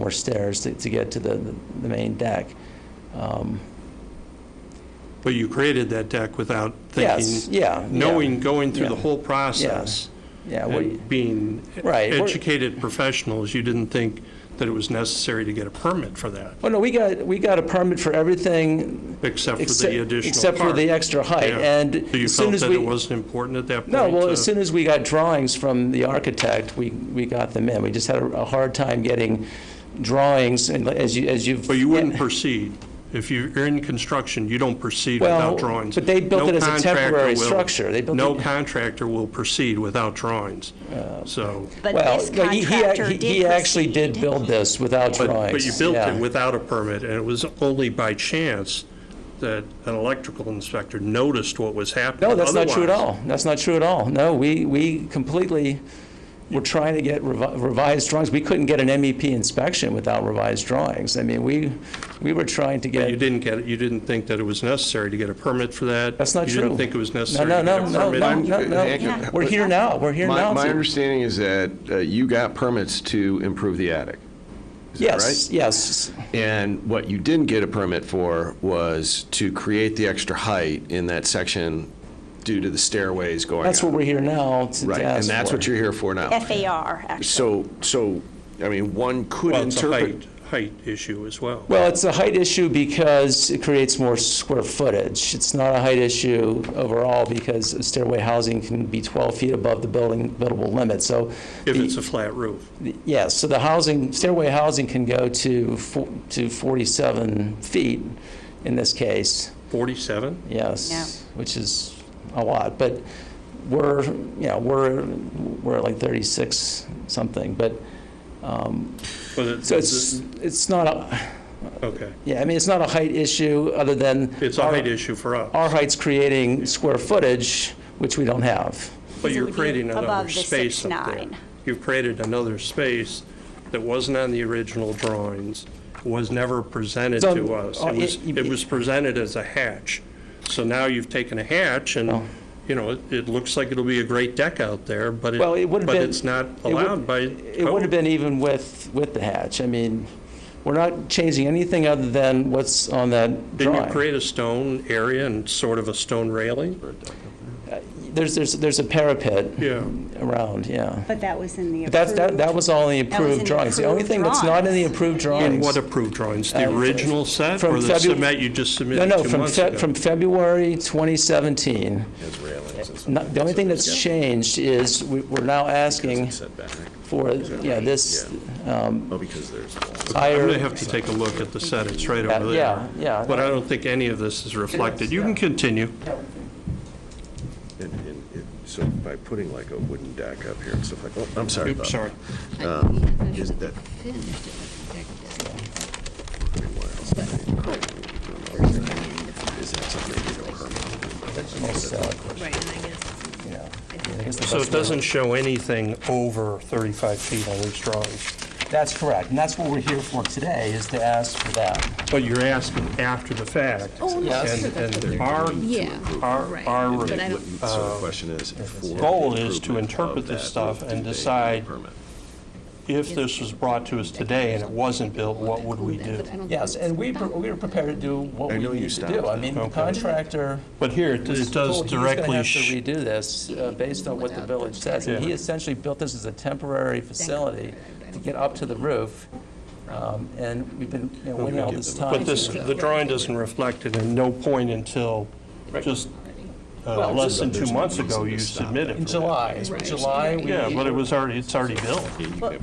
more stairs to, to get to the, the main deck. Um, But you created that deck without Yes, thinking, yeah. yeah, knowing, going through the yeah. whole process Yeah, we- and being Right, we're- educated professionals, you didn't think that it was necessary to get a permit for that, oh, no, we got, we got a permit for everything except for except, the additional except for part. the extra height, Yeah. and So you as soon felt as that it we, wasn't important at that point? uh, No, well, to- as soon as we got drawings from the architect, we, we got them in. We just had a a hard time getting drawings, and like- as you, as you've. But you wouldn't proceed. If you're in construction, you don't proceed Well, without drawings. but they built No it as a contractor temporary will- structure. They built No it- contractor will proceed without drawings, so. But Well, this no, he- he ac- contractor he- did He actually proceed. did build this without But- drawings. But you built yeah. it without a permit, and it was only by chance that an electrical inspector noticed what was happening. No, that's not true at Otherwise- all. That's not true at all. No, we, we completely were trying to get revi- revised drawings. We couldn't get an MEP inspection without revised drawings. I mean, we, we were trying to get. You didn't get, it. you didn't think that it was necessary to get a permit for that? That's not You true. didn't think it was necessary No, to no, get a no, permit? no, no, no. Yeah. We're here now, we're here My, now. my to- understanding is that uh, you got permits to improve the attic. Is that Yes, right? yes, And what you didn't get a permit for was to create the extra height in that section due to the stairways going that's what up. we're here now to to Right, and ask that's for. what you're here for now. FAR, actually. So, so, I mean, one could Well, it's a interpret. height, height issue as well. Well, it's a height issue because it creates more square footage. It's not a height issue overall because stairway housing can be 12 feet above the building buildable limit, so. If the- it's a flat roof. Yes, so the housing, stairway housing can go to, fo- to 47 feet in this case. 47? yes, which is a lot, but we're, you know, we're, we're at like 36 something, but, Was it- so it's, it's not, a Okay. yeah, I mean, it's not a height issue, other than. It's a height our- issue for us, Our height's creating square footage, which we don't have. but It you're would be creating above another the space up there. 6'9". You've created another space that wasn't on the original drawings, was never presented So, to us. uh, It was, it- it was presented as a hatch. So now you've taken a hatch Oh. and, you know, it, it looks like it'll be a great deck out there, but Well, it it, would have but been. it's not it would- allowed by It would have code. been even with, with the hatch. I mean, we're not changing anything other than what's on that Didn't drawing. you create a stone area and sort of a stone railing? There's, there's, there's a parapet. Yeah. Around, yeah. But that was in the But that's, that, approved. that was all in the That was in approved the drawings. The only approved thing that's not in the drawings. approved And drawings. what approved drawings? The Uh, original set from or the Febu- cement you just No, submitted no, two from, months Fe- ago? from February 2017. Not- The only thing that's changed is we- we're now asking for, yeah, this Oh, because there's walls. I'm going to higher, have to take a look at the set, it's right Yeah, over there. yeah, yeah. But I don't think any of this is reflected. You can continue. And, and it, so by putting like a wooden deck up here and stuff like, oh, I'm sorry about Oops, that. sorry. Um, Is that green wires? Is that something you know, So it doesn't show anything over 35 feet on these drawings. that's correct, and that's what we're here for today, is to ask for that. But you're asking after the fact. Yes. And, and our, Yeah, our, our But I don't- So the question is. for Uh, goal is the to improvement interpret of this that, stuff do and they need a decide- permit? if this was brought to us today and it wasn't built, what would we do? Yes, and we, pre- we were prepared to do what I we know you need to do. stopped. I mean, the Okay. contractor But here, it was it does told he was gonna directly, have to sh- redo this, uh, based on what the village says, and he Yeah. essentially built this as a temporary facility to get up to the roof, um, and we've been, you know, waiting all this time. but this, the drawing doesn't reflect it, and no point until just uh, less than two months ago you submitted. In for that. July, Right. July, we. Yeah, but it was already, it's already built.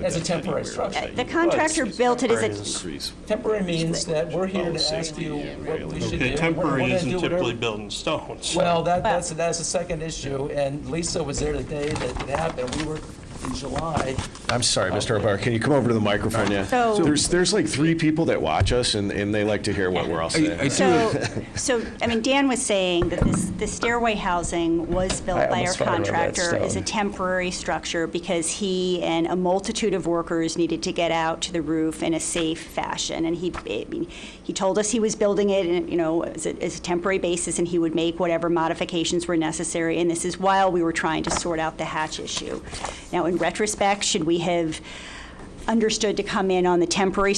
As a temporary structure. The contractor built it as a, Temporary means that we're here to ask you what we should do. Oh, Okay, We're- we're temporary gonna do isn't whatever- typically built in stone, so- Well, that, that's, that's the second issue, and Lisa was there the day that it happened. We were in July. I'm sorry, Mr. O'Barr, can you come over to the microphone, yeah? So- There's, there's like three people that watch us and, and they like to hear what we're all saying. so, so, I mean, Dan was saying that this, the stairway housing was I built by our almost fell over that contractor as a stone. temporary structure because he and a multitude of workers needed to get out to the roof in a safe fashion. And he, I mean, he told us he was building it, in, you know, as a, as a temporary basis, and he would make whatever modifications were necessary. And this is while we were trying to sort out the hatch issue. Now, in retrospect, should we have understood to come in on the temporary